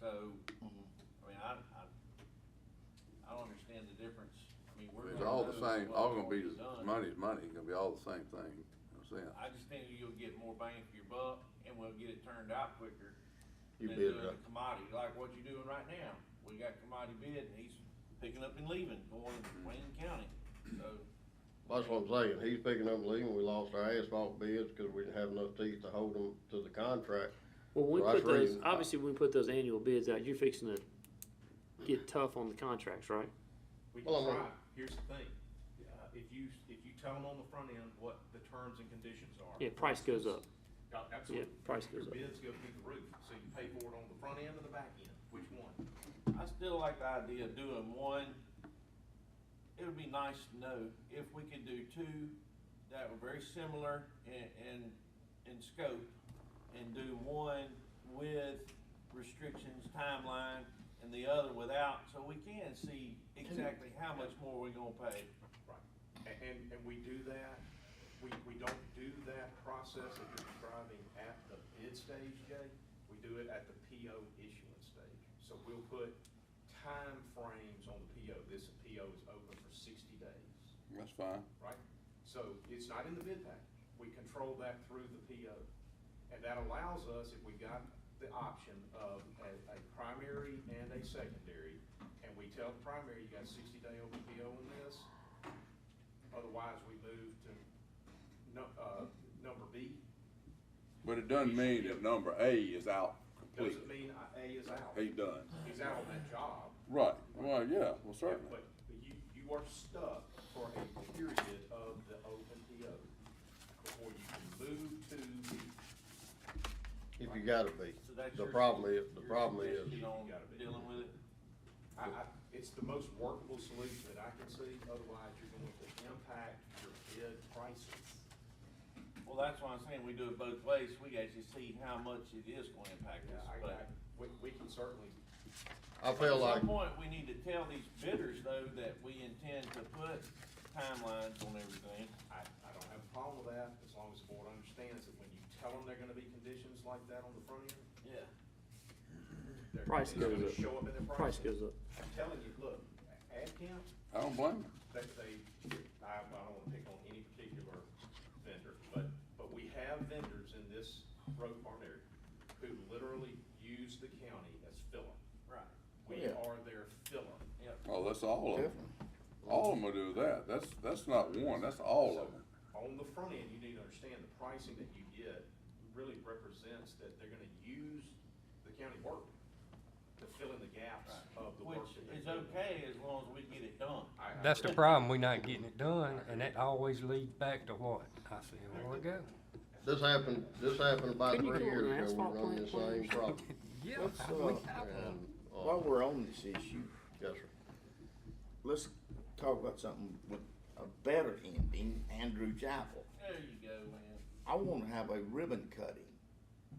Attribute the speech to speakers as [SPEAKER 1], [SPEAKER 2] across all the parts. [SPEAKER 1] So, I mean, I, I, I don't understand the difference. I mean, we're.
[SPEAKER 2] It's
[SPEAKER 1] gonna
[SPEAKER 2] all the
[SPEAKER 1] know
[SPEAKER 2] same,
[SPEAKER 1] what's
[SPEAKER 2] all gonna be,
[SPEAKER 1] already
[SPEAKER 2] the
[SPEAKER 1] done.
[SPEAKER 2] money's money, it's gonna be all the same thing, I'm saying.
[SPEAKER 1] I just think you'll get more bang for your buck and we'll get it turned out quicker
[SPEAKER 3] You
[SPEAKER 1] than
[SPEAKER 3] bid,
[SPEAKER 1] doing
[SPEAKER 3] right?
[SPEAKER 1] the commodity, like what you're doing right now. We got commodity bid and he's picking up and leaving, going to Wayne County. So,
[SPEAKER 3] That's what I'm saying, he's picking up and leaving, we lost our asphalt bids because we didn't have enough teeth to hold them to the contract.
[SPEAKER 4] Well, when we
[SPEAKER 3] So that's
[SPEAKER 4] put those,
[SPEAKER 3] reason-
[SPEAKER 4] obviously, when we put those annual bids out, you're fixing to get tough on the contracts, right?
[SPEAKER 5] We
[SPEAKER 3] Well, I'm-
[SPEAKER 5] can try, here's the thing, uh, if you, if you tell them on the front end what the terms and conditions are.
[SPEAKER 4] Yeah, price goes up.
[SPEAKER 5] Uh, Absolutely.
[SPEAKER 4] Yeah, price goes up.
[SPEAKER 5] Your bids go through the roof, so you pay for it on the front end or the back end, which one?
[SPEAKER 1] I still like the idea of doing one. It would be nice to know if we could do two that were very similar in, in, in scope and do one with restrictions, timeline, and the other without, so we can see exactly how much more we're gonna pay.
[SPEAKER 5] Right. A- And, and we do that, we, we don't do that process that you're describing at the bid stage, Jay. We do it at the PO issuance stage. So we'll put time frames on the PO. This PO is open for sixty days.
[SPEAKER 2] That's fine.
[SPEAKER 5] right? So it's not in the bid package. We control that through the PO. And that allows us, if we got the option of a, a primary and a secondary, and we tell the primary, you got sixty day open PO on this, otherwise we move to nu- uh, number B.
[SPEAKER 2] But it doesn't mean that number A is out
[SPEAKER 5] Doesn't
[SPEAKER 2] completely,
[SPEAKER 5] mean I- A is out.
[SPEAKER 2] he done.
[SPEAKER 5] He's out on that job.
[SPEAKER 2] Right, well, yeah, well,
[SPEAKER 5] Yeah,
[SPEAKER 2] certainly.
[SPEAKER 5] But you, you are stuck for a period of the open PO before you can move to the,
[SPEAKER 3] If you gotta be.
[SPEAKER 1] So that's
[SPEAKER 3] The
[SPEAKER 1] your-
[SPEAKER 3] problem is, the
[SPEAKER 1] your
[SPEAKER 3] problem
[SPEAKER 1] suggestion
[SPEAKER 3] is,
[SPEAKER 1] on
[SPEAKER 5] Gotta be.
[SPEAKER 1] Dealing with it.
[SPEAKER 5] I, I, it's the most workable solution that I can see, otherwise you're going to impact your bid prices.
[SPEAKER 1] Well, that's why I'm saying we do it both ways. We actually see how much it is gonna impact
[SPEAKER 5] Yeah,
[SPEAKER 1] us,
[SPEAKER 5] I, I,
[SPEAKER 1] but.
[SPEAKER 5] we, we can certainly,
[SPEAKER 3] I feel
[SPEAKER 1] At
[SPEAKER 3] like,
[SPEAKER 1] some point, we need to tell these bidders, though, that we intend to put timelines on everything.
[SPEAKER 5] I, I don't have a problem with that, as long as the board understands that when you tell them they're gonna be conditions like that on the front end,
[SPEAKER 1] Yeah.
[SPEAKER 5] they're.
[SPEAKER 4] Price
[SPEAKER 5] it's gonna
[SPEAKER 4] goes up.
[SPEAKER 5] Show up in their
[SPEAKER 4] Price
[SPEAKER 5] prices.
[SPEAKER 4] goes up.
[SPEAKER 5] I'm telling you, look, ad camp,
[SPEAKER 2] I don't blame him.
[SPEAKER 5] they, they, I, I don't wanna pick on any particular vendor, but, but we have vendors in this road department area who literally use the county as filler.
[SPEAKER 1] Right.
[SPEAKER 5] We
[SPEAKER 2] Yeah.
[SPEAKER 5] are their filler.
[SPEAKER 1] Yep.
[SPEAKER 2] Oh, that's all of them. All of them will do that, that's, that's not one, that's all of them.
[SPEAKER 5] So, On the front end, you need to understand the pricing that you get really represents that they're gonna use the county work to fill in the gaps of the work.
[SPEAKER 1] Which
[SPEAKER 5] that they're
[SPEAKER 1] is
[SPEAKER 5] doing.
[SPEAKER 1] okay as long as we get it done.
[SPEAKER 5] I- I-
[SPEAKER 6] That's the problem, we're not getting it done, and that always leads back to what? I say, well, it go.
[SPEAKER 3] this happened, this happened about
[SPEAKER 4] Couldn't you
[SPEAKER 3] three
[SPEAKER 4] go with an
[SPEAKER 3] years ago,
[SPEAKER 4] asphalt
[SPEAKER 3] we run the
[SPEAKER 4] plant,
[SPEAKER 3] same
[SPEAKER 4] please?
[SPEAKER 3] problem.
[SPEAKER 6] Yeah.
[SPEAKER 7] Let's, uh,
[SPEAKER 3] And,
[SPEAKER 7] while
[SPEAKER 3] uh,
[SPEAKER 7] we're on this issue,
[SPEAKER 3] yes, sir.
[SPEAKER 7] let's talk about something with a better ending, Andrew Chapel.
[SPEAKER 1] There you go, man.
[SPEAKER 7] I wanna have a ribbon cutting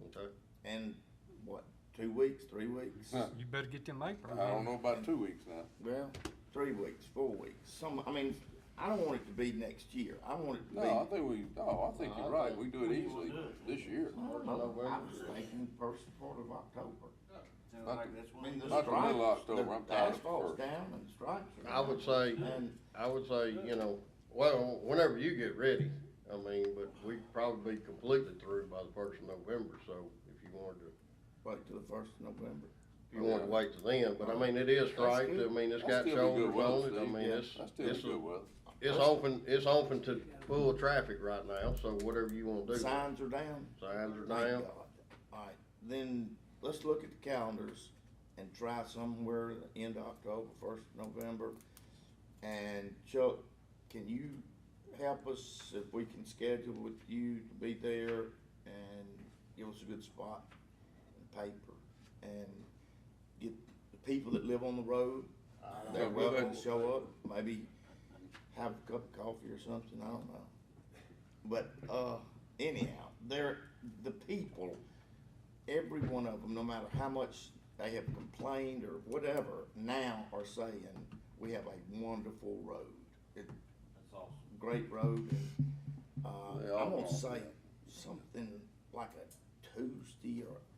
[SPEAKER 3] Okay.
[SPEAKER 7] in, what, two weeks, three weeks?
[SPEAKER 2] Huh.
[SPEAKER 6] You better get them
[SPEAKER 2] I
[SPEAKER 6] aprons.
[SPEAKER 2] don't know about two weeks now.
[SPEAKER 7] Well, three weeks, four weeks, some, I mean, I don't want it to be next year, I want it to be.
[SPEAKER 2] No, I think we, no, I think you're right, we do it easily this year.
[SPEAKER 7] Well, I was thinking first part of October.
[SPEAKER 1] Sounds like that's
[SPEAKER 7] I
[SPEAKER 1] what we
[SPEAKER 7] mean, the
[SPEAKER 1] do.
[SPEAKER 2] Not the middle of
[SPEAKER 7] stripes,
[SPEAKER 2] October,
[SPEAKER 7] the-
[SPEAKER 2] I'm
[SPEAKER 7] the
[SPEAKER 2] tired of
[SPEAKER 7] asphalt's
[SPEAKER 2] first.
[SPEAKER 7] down and the stripes are
[SPEAKER 3] I would say-
[SPEAKER 7] down. And
[SPEAKER 3] I would say, you know, well, whenever you get ready, I mean, but we'd probably be completely through by the first of November, so if you wanted to,
[SPEAKER 7] wait till the first of November.
[SPEAKER 3] if you wanted to wait till then, but I mean, it is right, I mean, it's got
[SPEAKER 2] That's still be good
[SPEAKER 3] shoulders on
[SPEAKER 2] weather,
[SPEAKER 3] it, I mean, it's,
[SPEAKER 2] Steve. That's still be
[SPEAKER 3] it's,
[SPEAKER 2] good weather.
[SPEAKER 3] it's open, it's open to full traffic right now, so whatever you wanna do. Signs
[SPEAKER 7] Signs are down.
[SPEAKER 3] are
[SPEAKER 7] Thank
[SPEAKER 3] down,
[SPEAKER 7] God. All right, then let's look at the calendars and try somewhere at the end of October, first of November. And Chuck, can you help us if we can schedule with you to be there and give us a good spot and paper? And get the people that live on the road, they're
[SPEAKER 2] Yeah, we'll
[SPEAKER 7] welcome
[SPEAKER 2] do.
[SPEAKER 7] to show up, maybe have a cup of coffee or something, I don't know. But uh, anyhow, they're the people. Every one of them, no matter how much they have complained or whatever, now are saying we have a wonderful road. It,
[SPEAKER 1] That's awesome.
[SPEAKER 7] great road. And, uh,
[SPEAKER 2] They all
[SPEAKER 7] I'm gonna
[SPEAKER 2] want
[SPEAKER 7] say
[SPEAKER 2] that.
[SPEAKER 7] something like a Tuesday or